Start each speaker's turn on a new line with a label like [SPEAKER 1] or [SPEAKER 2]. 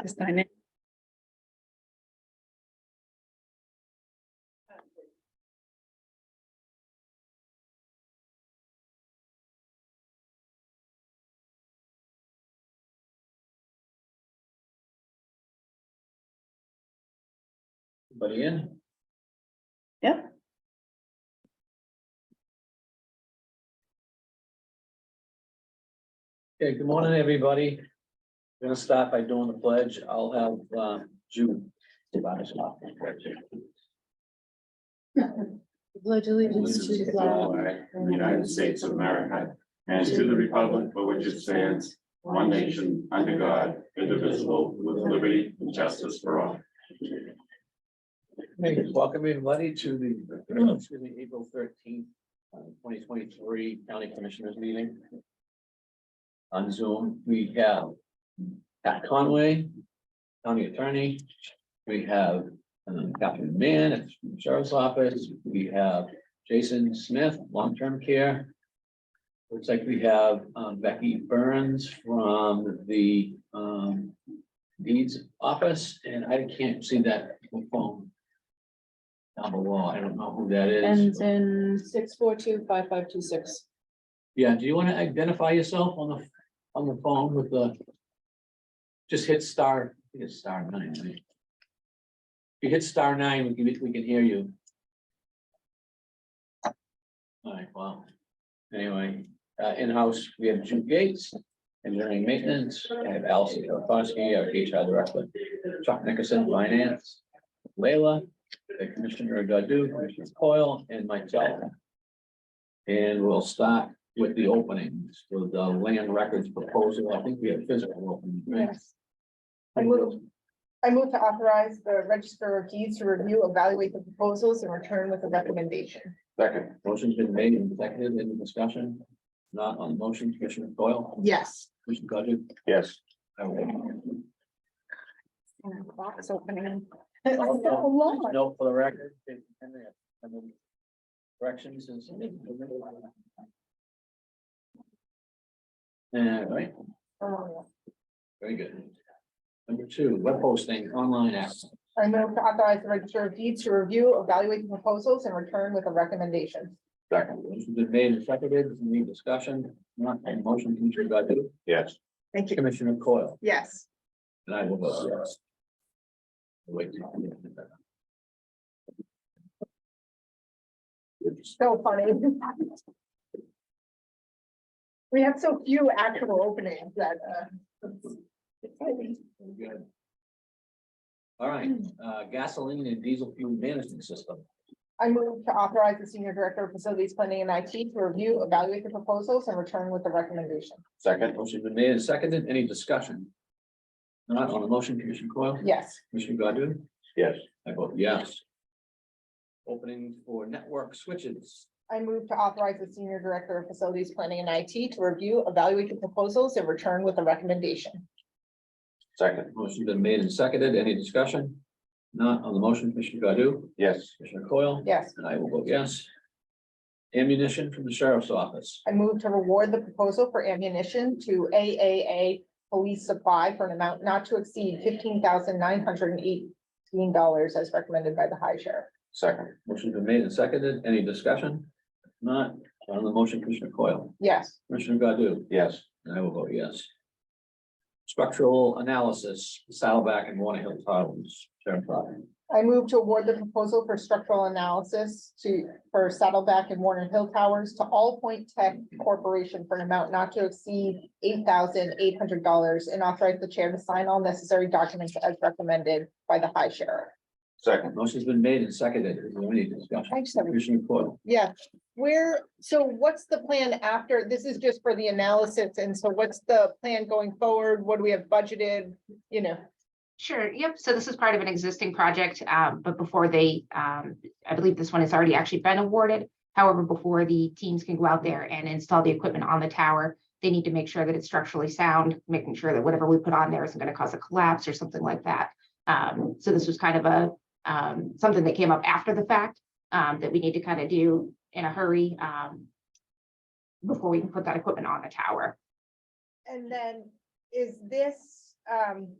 [SPEAKER 1] Just sign it.
[SPEAKER 2] But in?
[SPEAKER 1] Yep.
[SPEAKER 2] Okay, good morning, everybody. We're Gonna start by doing the pledge. I'll have uh, Jude. divide us off.
[SPEAKER 1] Pledge
[SPEAKER 3] allegiance to the flag of the United States of America and to the republic for which it stands, one nation, under God, indivisible, with liberty and justice for all.
[SPEAKER 2] Hey, welcome everybody to the, excuse me, April thirteenth, twenty twenty-three County Commissioners Meeting. On Zoom, we have Pat Conway, County Attorney. We have um, Catherine Mann at the Sheriff's Office. We have Jason Smith, Long-Term Care. Looks like we have um, Becky Burns from the um, Deeds Office, and I can't see that phone down below. I don't know who that is.
[SPEAKER 1] Ends in six, four, two, five, five, two, six.
[SPEAKER 2] Yeah, do you want to identify yourself on the, on the phone with the? Just hit star, I think it's star nine, right? If you hit star nine, we can, we can hear you. All right, well, anyway, uh, in-house, we have Jude Gates, engineering maintenance, I have Allison Kofoski, our HR director, Chuck Nickerson, finance, Leila, the Commissioner Godu, Commissioner Coyle, and myself. And we'll start with the openings, with the land records proposal. I think we have physical openings. right?
[SPEAKER 4] Yes. I move, I move to authorize the register of deeds to review, evaluate the proposals and return with a recommendation.
[SPEAKER 3] Second.
[SPEAKER 2] Motion's been made and seconded in the discussion. Not on the motion, Commissioner Coyle,
[SPEAKER 4] Yes.
[SPEAKER 2] Commissioner Godu.
[SPEAKER 3] Yes.
[SPEAKER 4] Box opening.
[SPEAKER 2] Note for the record. it's 10 minutes. And then Corrections is. All right,
[SPEAKER 4] I
[SPEAKER 2] very good. Number two, web posting, online access.
[SPEAKER 4] move to authorize the register of deeds to review, evaluate the proposals and return with a recommendation.
[SPEAKER 3] Second.
[SPEAKER 2] Motion's been made and seconded, any discussion, not on the motion, Commissioner Godu,
[SPEAKER 3] Yes.
[SPEAKER 4] Thank you.
[SPEAKER 2] Commissioner Coyle.
[SPEAKER 4] Yes.
[SPEAKER 2] And I will vote yes. Wait.
[SPEAKER 4] So funny. We have so few actual openings that, uh.
[SPEAKER 2] Good. All right, uh, gasoline and diesel fuel management system.
[SPEAKER 4] I move to authorize the senior director of facilities planning and IT to review, evaluate the proposals and return with a recommendation.
[SPEAKER 3] Second.
[SPEAKER 2] Motion been made and seconded, any discussion? Not on the motion, Commissioner Coyle,
[SPEAKER 4] Yes,
[SPEAKER 2] Commissioner Godu,
[SPEAKER 3] Yes.
[SPEAKER 2] I vote yes. Opening for network switches.
[SPEAKER 4] I move to authorize the senior director of facilities planning and IT to review, evaluate the proposals and return with a recommendation.
[SPEAKER 3] Second.
[SPEAKER 2] Motion been made and seconded, any discussion? Not on the motion, Commissioner Godu,
[SPEAKER 3] Yes.
[SPEAKER 2] Commissioner Coyle.
[SPEAKER 4] Yes,
[SPEAKER 2] And I will vote yes. Ammunition from the sheriff's office.
[SPEAKER 4] I move to reward the proposal for ammunition to AAA police supply for an amount not to exceed fifteen thousand nine hundred and eighteen dollars as recommended by the high sheriff.
[SPEAKER 3] Second.
[SPEAKER 2] Motion's been made and seconded. Any discussion? If Not on the motion, Commissioner Coyle,
[SPEAKER 4] Yes,
[SPEAKER 2] Commissioner Godu,
[SPEAKER 3] Yes.
[SPEAKER 2] and I will vote yes. Structural analysis, Saddleback and Water Hill Towers, Sheriff's Office.
[SPEAKER 4] I move to award the proposal for structural analysis to, for Saddleback and Warner Hill Towers to All Point Tech Corporation for an amount not to exceed eight thousand eight hundred dollars and authorize the chair to sign all necessary documents as recommended by the high sheriff.
[SPEAKER 3] Second.
[SPEAKER 2] Motion's been made and seconded. Is there any discussion?
[SPEAKER 4] I just have a-
[SPEAKER 2] Commissioner Coyle,
[SPEAKER 4] Yeah, where, so what's the plan after? This is just for the analysis, and so what's the plan going forward? What do we have budgeted? You know,
[SPEAKER 5] Sure, yep. So this is part of an existing project, um, but before they, um, I believe this one has already actually been awarded. However, before the teams can go out there and install the equipment on the tower, they need to make sure that it's structurally sound, making sure that whatever we put on there isn't gonna cause a collapse or something like that. Um, so this was kind of a, um, something that came up after the fact, um, that we need to kind of do in a hurry, um, before we can put that equipment on the tower.
[SPEAKER 4] and then is this, um,